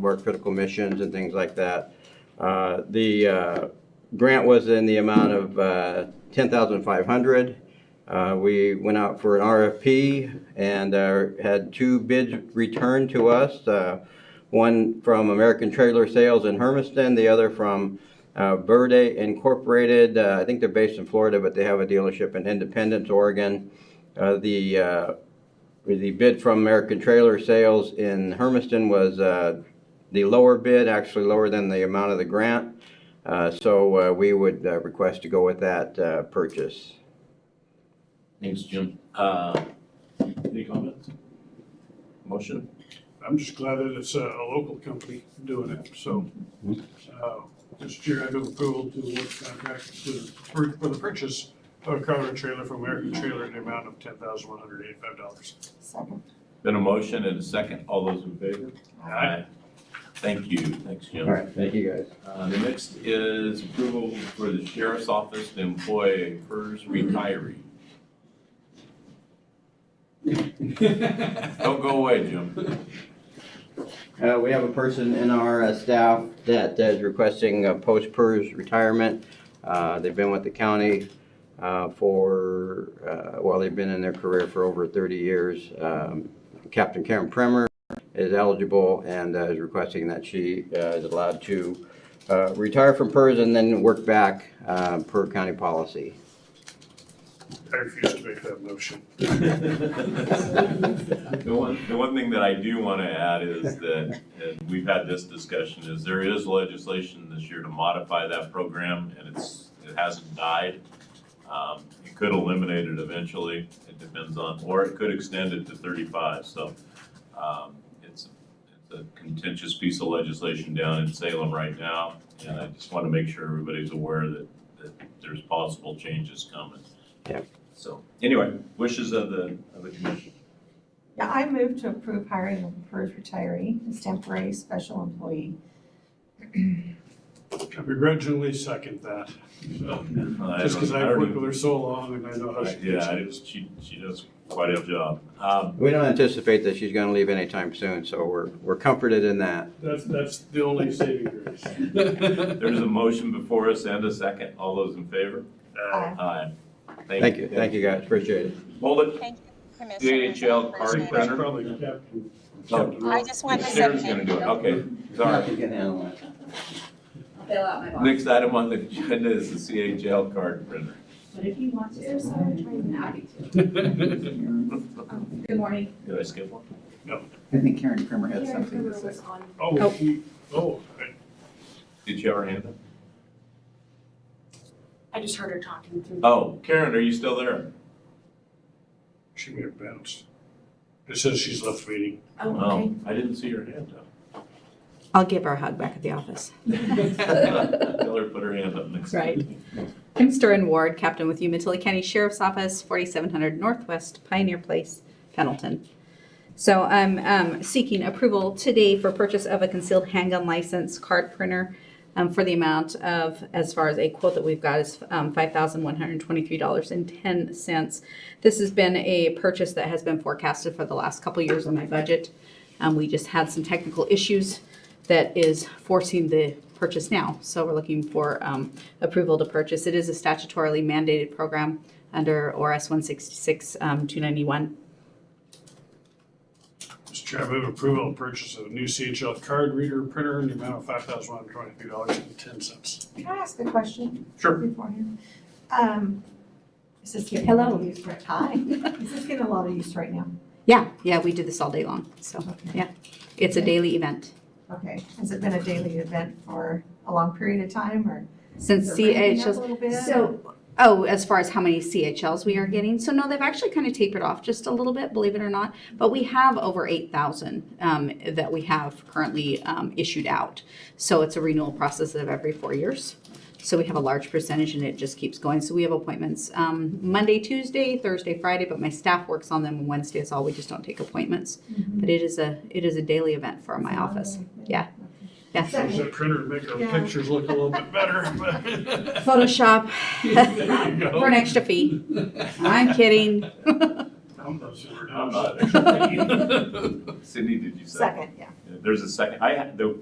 work critical missions and things like that. Uh, The uh, grant was in the amount of uh, 10500 Uh, We went out for an RFP and uh, had two bids returned to us. uh, One from American Trailer Sales in Hermiston, the other from uh, Verde Incorporated. Uh, I think they're based in Florida, but they have a dealership in Independence, Oregon. Uh, The uh, the bid from American Trailer Sales in Hermiston was uh, the lower bid, actually lower than the amount of the grant. Uh, So uh, we would uh, request to go with that uh, purchase. Thanks, Jim. Uh, Any comments? Motion? I'm just glad that it's a, a local company doing it, so. uh, Mr. Chair, I move approval to award the contract to, for for the purchase of a Crowder trailer from American Trailer in the amount of ten thousand one hundred eighty-five dollars. Second. Been a motion and a second. All those in favor? Aye. Thank you. Thanks, Jim. All right, thank you, guys. Uh, The next is approval for the sheriff's office to employ a PERS retiree. Don't go away, Jim. Uh, we have a person in our uh, staff that that is requesting a post-PERS retirement. Uh, they've been with the county, uh, for, uh, well, they've been in their career for over thirty years. Um, Captain Karen Premer is eligible and uh, is requesting that she, uh, is allowed to, uh, retire from PERS and then work back, uh, per county policy. I refuse to make that motion. The one, the one thing that I do want to add is that, and we've had this discussion, is there is legislation this year to modify that program, and it's, it hasn't died. Um, It could eliminate it eventually, it depends on, or it could extend it to thirty-five, so um, it's, it's a contentious piece of legislation down in Salem right now, and I just want to make sure everybody's aware that, that there's possible changes coming. Yeah. So, anyway, wishes of the, of the commission. Yeah, I move to approve hiring of a PERS retiree as temporary special employee. I begrudgingly second that, so, Uh, just because I've worked with her so long and I know how she Yeah, gets I it. just, she, she does quite a job. Um, We don't anticipate that she's gonna leave anytime soon, so we're, we're comforted in that. That's, that's the only saving grace. There's a motion before us and a second. All those in favor? Aye. Aye. Thank you, thank you guys, appreciate it. Hold Thank you, Commissioner. DHL I appreciate card it. That's probably Captain, Oh, it. Captain I Ross. just wanted to say Sarah's thank gonna do it, you. okay. Sorry. Nothing can handle it. fill out my box. Next item on the agenda is the CHL card printer. But if you want to, so I'm happy to. Good morning. Did I skip one? I think Karen Kramer had Karen something to Kruger say. was on- Oh, she, oh, I- Did you have her hand up? I just heard her talking through. Oh, Karen, are you still there? she may have bounced. It says she's left meeting. Oh, okay. Oh, I didn't see her hand up. I'll give her a hug back at the office. Tell her to put her hand up next. time. Right. I'm Storrin Ward, captain with Umatilla County Sheriff's Office, 4700 Northwest Pioneer Place, Pendleton. So I'm um, seeking approval today for purchase of a concealed handgun license card printer um, for the amount of, as far as a quote that we've got is um, $5,123.10. This has been a purchase that has been forecasted for the last couple years on my budget. Um, We just had some technical issues that is forcing the purchase now. So we're looking for um, approval to purchase. It is a statutorily mandated program under ORS 166, um, 291. Mr. Chair, I move approval of purchase of a new CHL card reader printer in the amount of five thousand one hundred twenty-three dollars and ten cents. Can I ask a question? Sure. Beforehand. Um, is this getting a lot of use right, hi, is this getting a lot of use right now? Yeah, yeah, we do this all day long. So Okay. it's a daily event. Okay, has it been a daily event for a long period of time or? Since is it ramping up A CHLs, little bit? so, oh, as far as how many CHLs we are getting. So no, they've actually kind of tapered off just a little bit, believe it or not. But we have over 8,000 um, that we have currently um, issued out. So it's a renewal process of every four years. So we have a large percentage and it just keeps going. So we have appointments um, Monday, Tuesday, Thursday, Friday, but my staff works on them and Wednesday is all. We just don't take appointments. Mhm. But it is a, it is a daily event for my office. Yeah. Yeah. Use that printer to make our Yeah. pictures look a little bit better, but. Photoshop There you go. for an extra fee. I'm kidding. I'm not sure. I'm not actually. Sydney, did you say? Second, yeah. Yeah. there's a second, I, ha- the